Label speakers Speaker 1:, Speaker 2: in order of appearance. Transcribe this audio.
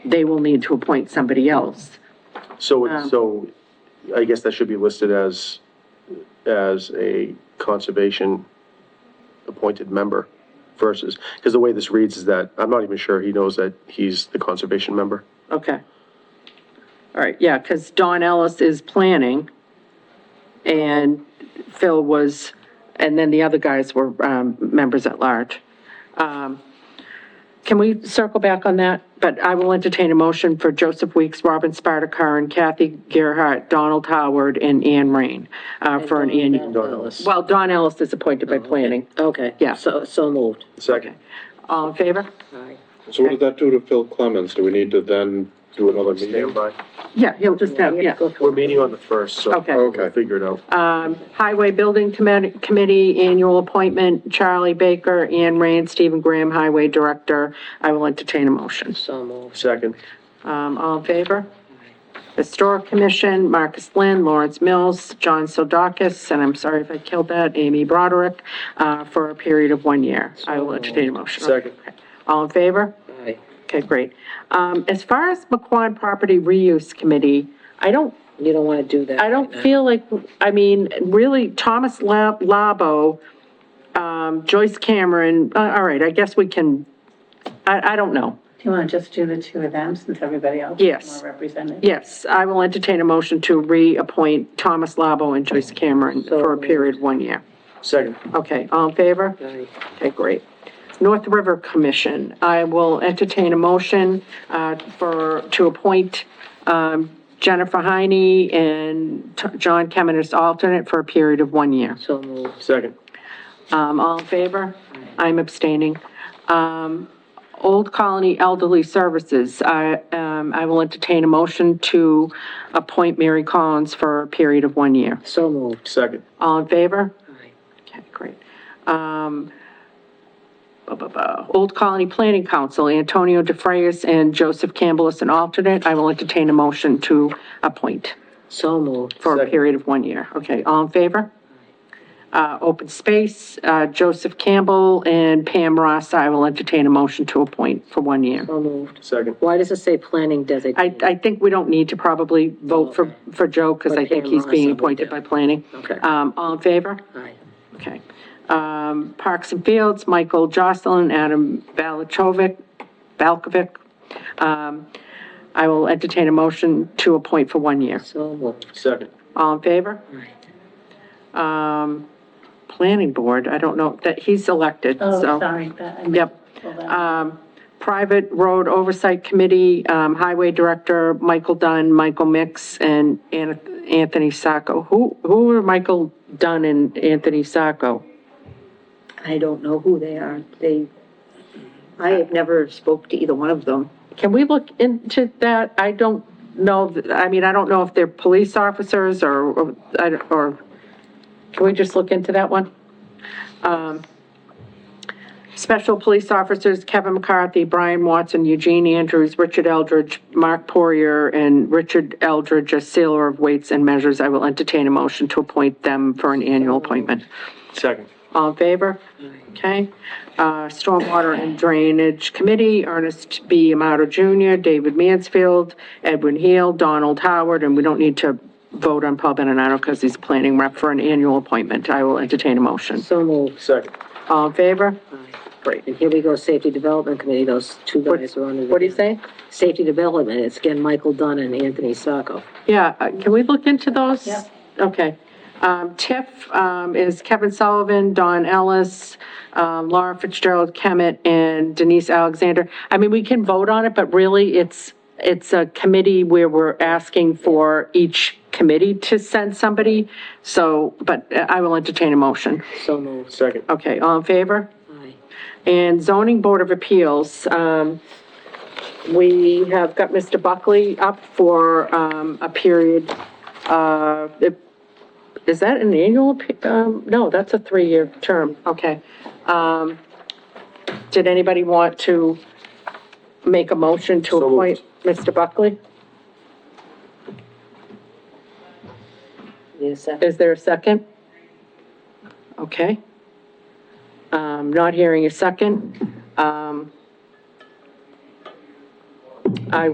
Speaker 1: they will need to appoint somebody else.
Speaker 2: So, it- so I guess that should be listed as, as a conservation appointed member versus, because the way this reads is that, I'm not even sure he knows that he's the conservation member.
Speaker 1: Okay. All right, yeah, because Don Ellis is planning, and Phil was, and then the other guys were um, members at large. Um, Can we circle back on that? But I will entertain a motion for Joseph Weeks, Robin Spartacar, and Kathy Gerhart, Donald Howard, and Ann Rain uh, for an annual.
Speaker 2: Don Ellis.
Speaker 1: Well, Don Ellis is appointed by planning.
Speaker 3: Okay.
Speaker 1: Yeah.
Speaker 3: So, so moved.
Speaker 2: Second.
Speaker 1: All in favor?
Speaker 3: Aye.
Speaker 4: So what did that do to Phil Clemens? Do we need to then do another meeting?
Speaker 2: Stand by.
Speaker 1: Yeah, he'll just have, yeah.
Speaker 2: We're meeting on the first, so.
Speaker 1: Okay.
Speaker 2: we'll Figure it out.
Speaker 1: Highway Building Commi- Committee, annual appointment, Charlie Baker, Ann Rand, Stephen Graham, Highway Director. I will entertain a motion.
Speaker 3: So moved.
Speaker 2: Second,
Speaker 1: Um, all in favor? Historic Commission, Marcus Lynn, Lawrence Mills, John Sodakis, and I'm sorry if I killed that, Amy Broderick, uh, for a period of one year. I will entertain a motion.
Speaker 2: Second.
Speaker 1: Okay. All in favor?
Speaker 3: Aye.
Speaker 1: Okay, great. Um, as far as McQuon Property Reuse Committee, I don't
Speaker 3: You don't want to do that.
Speaker 1: I
Speaker 3: right
Speaker 1: don't
Speaker 3: now.
Speaker 1: feel like, I mean, really, Thomas La- Labo, um, Joyce Cameron, uh, all right, I guess we can, I, I don't know.
Speaker 5: Do you want to just do the two of them since everybody else
Speaker 1: Yes.
Speaker 5: is more represented?
Speaker 1: Yes, I will entertain a motion to reappoint Thomas Labo and Joyce Cameron for a period of one year.
Speaker 2: second.
Speaker 1: Okay, all in favor?
Speaker 3: Aye.
Speaker 1: Okay, great. North River Commission, I will entertain a motion uh, for, to appoint um, Jennifer Heine and T- John Kemen as alternate for a period of one year.
Speaker 3: So moved.
Speaker 2: Second,
Speaker 1: Um, all in favor? I'm abstaining. Um, Old Colony Elderly Services, I, um, I will entertain a motion to appoint Mary Collins for a period of one year.
Speaker 3: So moved.
Speaker 2: second,
Speaker 1: All in favor?
Speaker 3: Aye.
Speaker 1: Okay, great. Um, blah, blah, blah. Old Colony Planning Council, Antonio DeFrayis and Joseph Campbell as an alternate. I will entertain a motion to appoint
Speaker 3: So moved.
Speaker 1: for a
Speaker 2: Second.
Speaker 1: period of one year. Okay, all in favor? Uh, open space, uh, Joseph Campbell and Pam Ross, I will entertain a motion to appoint for one year.
Speaker 3: So moved.
Speaker 2: second.
Speaker 3: Why does it say planning
Speaker 1: I,
Speaker 3: designate?
Speaker 1: I think we don't need to probably vote for, for Joe, because I
Speaker 3: But
Speaker 1: think
Speaker 3: Pam
Speaker 1: he's
Speaker 3: Ross,
Speaker 1: being
Speaker 3: I would
Speaker 1: appointed
Speaker 3: do.
Speaker 1: by planning.
Speaker 3: Okay.
Speaker 1: Um, all in favor?
Speaker 3: Aye.
Speaker 1: Okay. Um, Parks and Fields, Michael Jocelyn, Adam Balachovic, Balkovic. Um, I will entertain a motion to appoint for one year.
Speaker 3: So moved.
Speaker 2: Second,
Speaker 1: All in favor? Um, planning board, I don't know, that he's elected,
Speaker 5: Oh,
Speaker 1: so.
Speaker 5: sorry, that, I meant
Speaker 1: Yep.
Speaker 5: to pull that.
Speaker 1: Um, private road oversight committee, um, highway director, Michael Dunn, Michael Mix, and An- Anthony Sacco. Who, who are Michael Dunn and Anthony Sacco?
Speaker 6: I don't know who they are. They, I have never spoke to either one of them.
Speaker 1: Can we look into that? I don't know, th- I mean, I don't know if they're police officers or, or, I don't- or, can we just look into that one? Um, Special Police Officers Kevin McCarthy, Brian Watson, Eugene Andrews, Richard Eldridge, Mark Poirier, and Richard Eldridge, a sailor of weights and measures. I will entertain a motion to appoint them for an annual appointment.
Speaker 2: second,
Speaker 1: All in favor? Okay. Uh, Stormwater and Drainage Committee, Ernest B. Amato Jr., David Mansfield, Edwin Heel, Donald Howard, and we don't need to vote on Paul Beninato because he's planning rep for an annual appointment. I will entertain a motion.
Speaker 3: So moved.
Speaker 2: second.
Speaker 1: All in favor? Great.
Speaker 3: And here we go, Safety Development Committee, those two guys are on it.
Speaker 1: What do you say?
Speaker 3: Safety Development, it's again Michael Dunn and Anthony Sacco.
Speaker 1: Yeah, uh, can we look into those?
Speaker 5: Yep.
Speaker 1: Okay. Um, TIF, um, is Kevin Sullivan, Don Ellis, um, Laura Fitzgerald Kemet, and Denise Alexander. I mean, we can vote on it, but really, it's, it's a committee where we're asking for each committee to send somebody, so, but uh, I will entertain a motion.
Speaker 3: So moved.
Speaker 2: Second,
Speaker 1: Okay, all in favor?
Speaker 3: Aye.
Speaker 1: And zoning board of appeals, um, we have got Mr. Buckley up for, um, a period, uh, it- is that an annual, appe- um, no, that's a three-year term, okay. Um, did anybody want to make a motion to
Speaker 2: So
Speaker 1: appoint
Speaker 2: moved.
Speaker 1: Mr. Buckley?
Speaker 3: Need a second?
Speaker 1: Is there a second? Okay. Um, not hearing a second. Um,